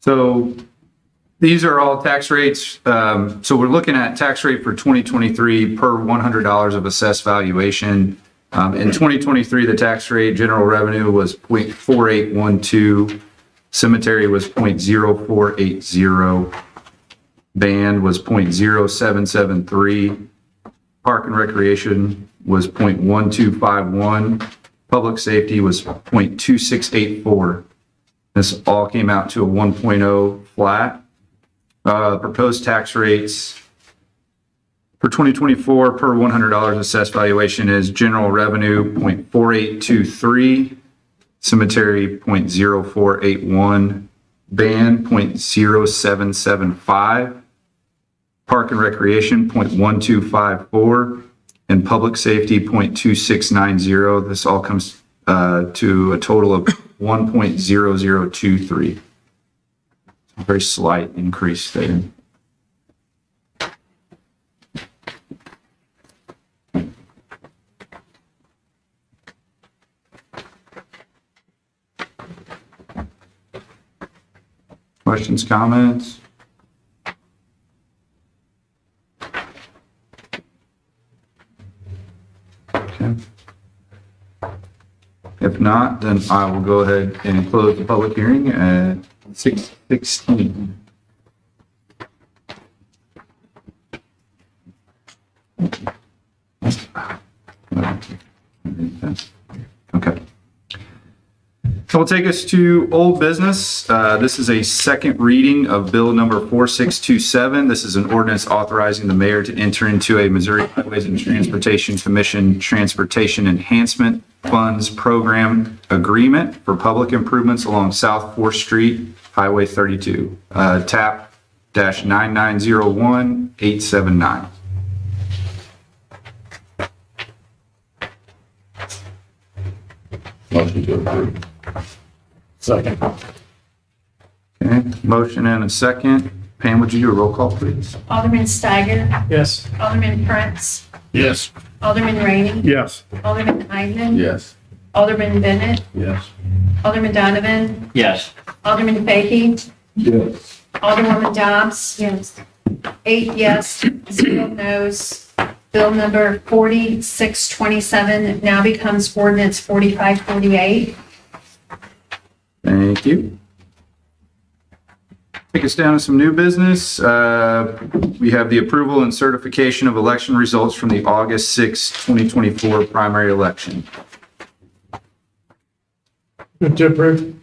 So these are all tax rates. Um, So we're looking at tax rate for 2023 per $100 of assessed valuation. Um, In 2023, the tax rate, general revenue was .4812, cemetery was .0480, band was .0773, Park and Recreation was .1251. Public Safety was .2684. This all came out to a 1.0 flat. Uh, Proposed tax rates for 2024 per $100 assessed valuation is general revenue .4823, cemetery .0481, band .0775, Park and Recreation, .1254, and Public Safety, .2690. This all comes uh, to a total of 1.0023. Very slight increase there. Questions, comments? Okay. If not, then I will go ahead and close the public hearing at six sixteen. Okay. So we'll take us to old business. Uh, This is a second reading of bill number 4627. This is an ordinance authorizing the mayor to enter into a Missouri Highways and Transportation Commission Transportation Enhancement Funds Program Agreement for public improvements along South Fourth Street, Highway 32, uh, TAP dash 9901879. Motion to approve. Second. Okay, motion and a second. Pam, would you do a roll call, please? Alderman Steiger, Yes. Alderman Prince, Yes. Alderman Rainey, Yes. Alderman Eidman, Yes. Alderman Bennett, Yes. Alderman Donovan, Yes. Alderman Fahy, Yes. Alderwoman Dobbs. Yes. Eight yes, zero no's. Bill number 4627 now becomes ordinance 4548. Thank you. Take us down to some new business. Uh, We have the approval and certification of election results from the August 6, 2024 primary election. Move to approve.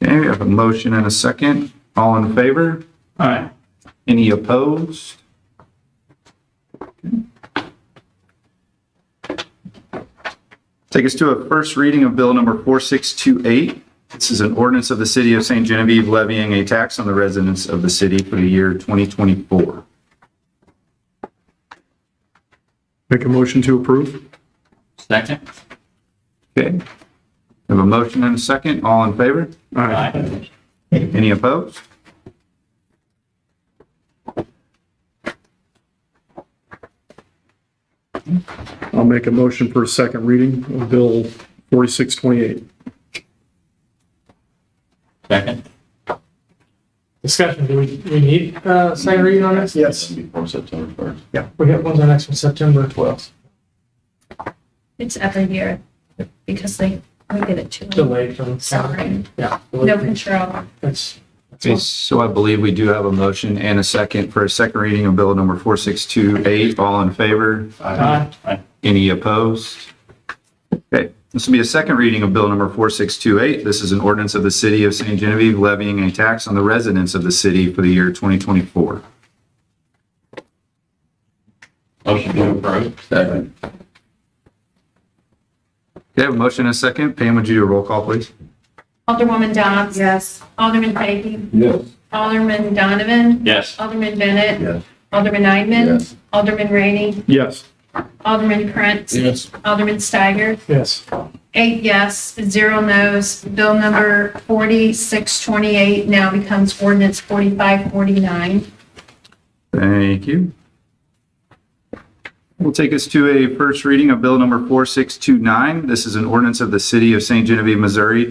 Okay, we have a motion and a second. All in favor? Aye. Any opposed? Take us to a first reading of Bill Number 4628. This is an ordinance of the City of St. Genevieve levying a tax on the residents of the city for the year 2024. Make a motion to approve? Second? Okay. We Have a motion and a second. All in favor? Aye. Any opposed? I'll make a motion for a second reading of Bill 4628. Second? discussion, do we, we need uh second reading on this? Yes. Before September first. We have one's our next one, September. Twelve. It's every year because they, we get it too. Delayed from. Oh, Sorry. Yeah. No control. That's, Okay, so I believe we do have a motion and a second for a second reading of Bill Number 4628. All in favor? Aye. Any opposed? Okay, this will be a second reading of Bill Number 4628. This is an ordinance of the City of St. Genevieve levying a tax on the residents of the city for the year 2024. Motion to approve? Second. Okay, I have a motion and a second. Pam, would you do a roll call, please? Alderwoman Dobbs. Yes. Alderman Fahy, Yes. Alderman Donovan, Yes. Alderman Bennett, Yes. Alderman Eidman, Yes. Alderman Rainey, Yes. Alderman Prince, Yes. Alderman Steiger, yes, eight yes, zero no's. Bill number 4628 now becomes ordinance 4549. Thank you. Will take us to a first reading of Bill Number 4629. This is an ordinance of the City of St. Genevieve, Missouri